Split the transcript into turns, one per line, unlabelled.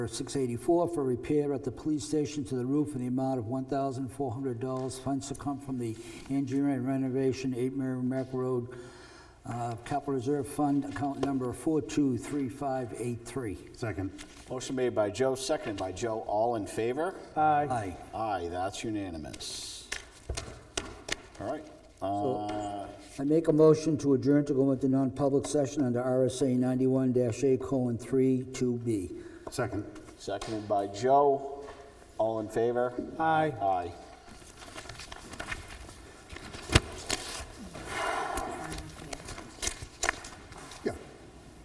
684 for repair at the police station to the roof in the amount of $1,400. Funds to come from the engineering and renovation, 8 Merrimack Road, uh, Capital Reserve Fund, account number 423583.
Second.
Motion made by Joe, seconded by Joe. All in favor?
Aye.
Aye, that's unanimous. All right. Uh,
I make a motion to adjourn to go into non-public session under RSA 91-A colon 3 2B.
Second.
Seconded by Joe. All in favor?
Aye.
Aye.